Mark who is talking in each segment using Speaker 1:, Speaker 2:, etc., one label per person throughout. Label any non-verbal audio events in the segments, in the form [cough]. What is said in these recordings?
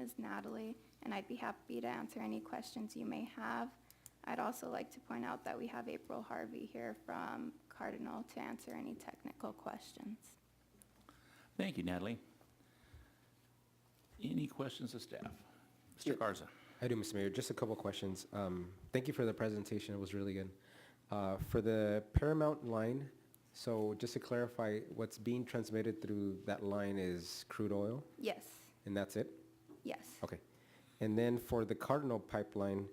Speaker 1: is Natalie, and I'd be happy to answer any questions you may have. I'd also like to point out that we have April Harvey here from Cardinal to answer any technical questions.
Speaker 2: Thank you, Natalie. Any questions of staff?
Speaker 3: Yeah.
Speaker 2: Mr. Garza?
Speaker 3: I do, Mr. Mayor. Just a couple questions. Um, Thank you for the presentation. It was really good. Uh, For the Paramount line, so just to clarify, what's being transmitted through that line is crude oil,
Speaker 1: Yes,
Speaker 3: and that's it?
Speaker 1: yes.
Speaker 3: Okay. And then for the Cardinal pipeline,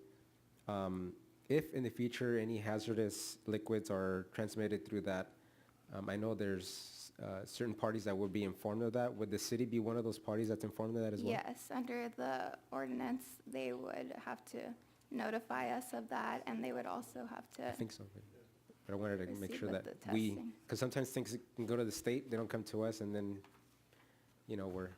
Speaker 3: um, if in the future any hazardous liquids are transmitted through that, um, I know there's uh, certain parties that would be informed of that. Would the city be one of those parties that's informed of that as well?
Speaker 1: Yes, under the ordinance, they would have to notify us of that, and they would also have
Speaker 3: I
Speaker 1: to,
Speaker 3: think so, but- but I wanted to make
Speaker 1: Proceed
Speaker 3: sure
Speaker 1: with
Speaker 3: that
Speaker 1: the
Speaker 3: we,
Speaker 1: testing.
Speaker 3: because sometimes things can go to the state, they don't come to us, and then, you know, we're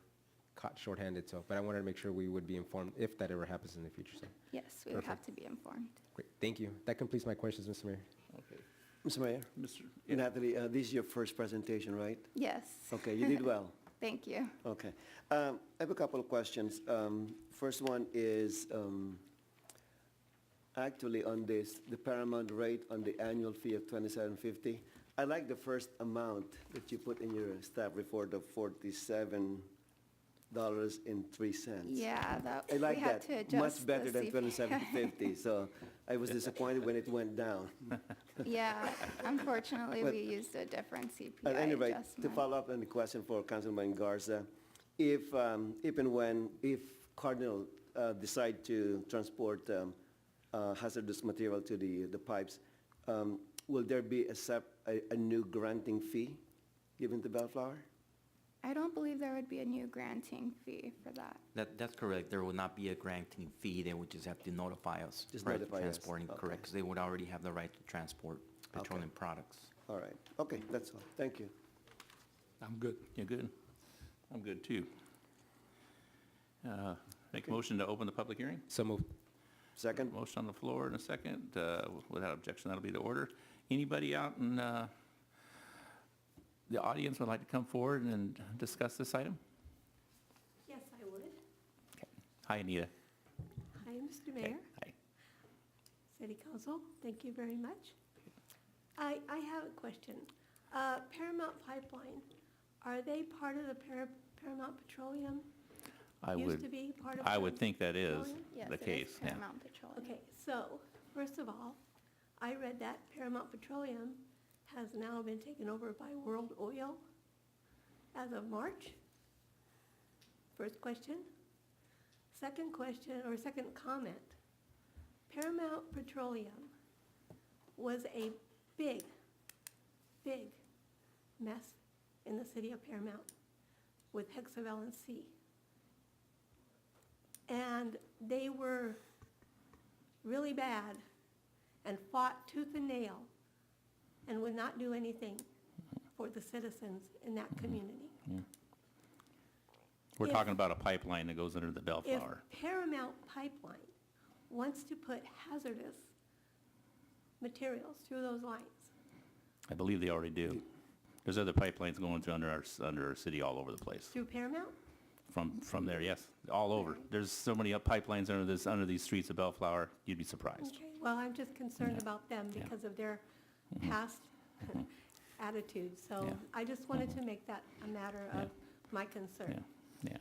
Speaker 3: caught shorthanded, so, but I wanted to make sure we would be informed if that ever happens in the future, so,
Speaker 1: yes, we would have to be informed.
Speaker 3: great, thank you. That completes my questions, Mr. Mayor.
Speaker 2: Okay.
Speaker 4: Mr. Mayor,
Speaker 2: Mr., yeah,
Speaker 4: Natalie, uh, this is your first presentation, right?
Speaker 1: Yes,
Speaker 4: Okay, you did well.
Speaker 1: thank you.
Speaker 4: Okay. Um, I have a couple of questions. Um, First one is, um, actually on this, the paramount rate on the annual fee of twenty-seven fifty. I like the first amount that you put in your staff report of forty-seven dollars and three cents.
Speaker 1: Yeah, that,
Speaker 4: I
Speaker 1: we
Speaker 4: like
Speaker 1: had
Speaker 4: that.
Speaker 1: to adjust.
Speaker 4: Much better
Speaker 1: the
Speaker 4: than
Speaker 1: CP.
Speaker 4: twenty-seven fifty, so I
Speaker 1: [laughs]
Speaker 4: was disappointed when it went down.
Speaker 1: Yeah, unfortunately,
Speaker 4: [laughs] But-
Speaker 1: we used a different CPI
Speaker 4: At any rate, to
Speaker 1: adjustment.
Speaker 4: follow up on the question for Councilman Garza, if, um, if and when, if Cardinal uh, decide to transport um, uh, hazardous material to the, the pipes, um, will there be a sep, a, a new granting fee given to Bellflower?
Speaker 1: I don't believe there would be a new granting fee for that.
Speaker 5: That, that's correct. There will not be a granting fee. They would just have to notify us.
Speaker 4: Just
Speaker 5: prior to
Speaker 4: notify us.
Speaker 5: Transporting,
Speaker 4: Okay.
Speaker 5: correct, 'cause they would already have the right to transport petroleum products.
Speaker 4: All right, okay, that's all, thank you.
Speaker 2: I'm good. You're good? I'm good, too. Uh, Make a motion to open the public hearing?
Speaker 3: So moved.
Speaker 4: Second,
Speaker 2: Motion on the floor in a second. Uh, Without objection, that'll be the order. Anybody out in uh, the audience would like to come forward and discuss this item?
Speaker 6: Yes, I would.
Speaker 2: Hi, Anita.
Speaker 6: Hi, Mr.
Speaker 2: Okay,
Speaker 6: Mayor,
Speaker 2: Hi.
Speaker 6: City Council, thank you very much. I, I have a question. Uh, Paramount Pipeline, are they part of the Par- Paramount Petroleum?
Speaker 2: I
Speaker 6: Used to
Speaker 2: would,
Speaker 6: be part of.
Speaker 2: I would
Speaker 6: Paramount
Speaker 2: think that is
Speaker 6: Petroleum?
Speaker 1: Yes,
Speaker 2: the
Speaker 1: it is
Speaker 2: case, yeah.
Speaker 1: Paramount Petroleum.
Speaker 6: Okay, so, first of all, I read that Paramount Petroleum has now been taken over by World Oil as of March. First question. Second question, or second comment. Paramount Petroleum was a big, big mess in the city of Paramount with Hexavalent C. And they were really bad and fought tooth and nail and would not do anything for the citizens in that
Speaker 2: Mm-hmm.
Speaker 6: community.
Speaker 2: We're
Speaker 6: If-
Speaker 2: talking about a pipeline that goes under the
Speaker 6: If
Speaker 2: Bellflower.
Speaker 6: Paramount Pipeline wants to put hazardous materials through those lines,
Speaker 2: I believe they already do. There's other pipelines going through under our, s- under our city all over the place.
Speaker 6: through Paramount,
Speaker 2: From, from there, yes, all over. There's so many up pipelines under this, under these streets of Bellflower, you'd be surprised.
Speaker 6: okay, well, I'm just concerned
Speaker 2: Yeah.
Speaker 6: about them
Speaker 2: Yeah. Mm-hmm.
Speaker 6: because of their
Speaker 2: [laughs]
Speaker 6: past attitudes. So
Speaker 2: Yeah.
Speaker 6: I just wanted to make that a matter
Speaker 2: Yeah.
Speaker 6: of my concern,
Speaker 2: Yeah.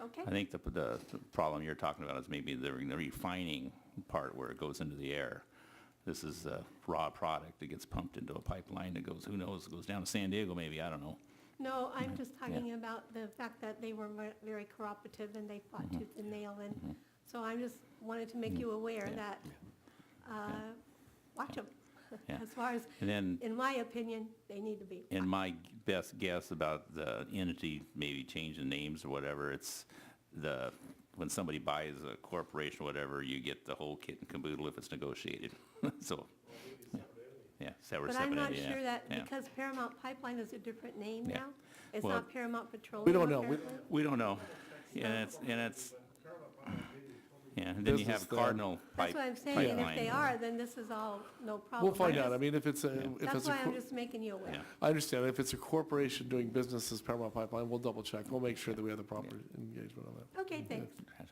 Speaker 6: okay?
Speaker 2: I think the, the the problem you're talking about is maybe the the refining part where it goes into the air. This is a raw product that gets pumped into a pipeline that goes, who knows, it goes down to San Diego maybe, I don't know.
Speaker 6: No, I'm just talking about the fact that they were ver- very cooperative and they fought
Speaker 2: Mm-hmm.
Speaker 6: tooth and nail, and so I just wanted to make you aware
Speaker 2: Yeah.
Speaker 6: that, uh, watch them.
Speaker 2: Yeah.
Speaker 6: [laughs] As far as,
Speaker 2: And then
Speaker 6: in my opinion, they need to be.
Speaker 2: And my best guess about the entity maybe changing names or whatever, it's the, when somebody buys a corporation or whatever, you get the whole kit and caboodle if it's negotiated, [laughs] so. Yeah, separate,
Speaker 6: But
Speaker 2: separate.
Speaker 6: I'm not
Speaker 2: entity, yeah,
Speaker 6: sure that,
Speaker 2: yeah.
Speaker 6: because Paramount Pipeline is a different name
Speaker 2: Yeah.
Speaker 6: now, it's
Speaker 2: Well,
Speaker 6: not Paramount Petroleum.
Speaker 7: We don't know. We-
Speaker 6: apparently.
Speaker 2: We don't know. Yeah, it's, and it's, yeah, and then you
Speaker 7: This is
Speaker 2: have
Speaker 7: the-
Speaker 2: Cardinal
Speaker 6: That's
Speaker 2: Pipe-
Speaker 6: what I'm
Speaker 2: Pipeline.
Speaker 6: saying, and if they are, then this is all no problem.
Speaker 7: We'll find
Speaker 6: I'm
Speaker 7: out. I
Speaker 6: just-
Speaker 7: mean, if it's a, if
Speaker 6: That's
Speaker 7: it's a,
Speaker 6: why I'm
Speaker 7: cor-
Speaker 6: just making you aware.
Speaker 2: Yeah.
Speaker 7: I understand. If it's a corporation doing business as Paramount Pipeline, we'll double check. We'll make sure that we have the proper engagement on that.
Speaker 6: Okay, thanks.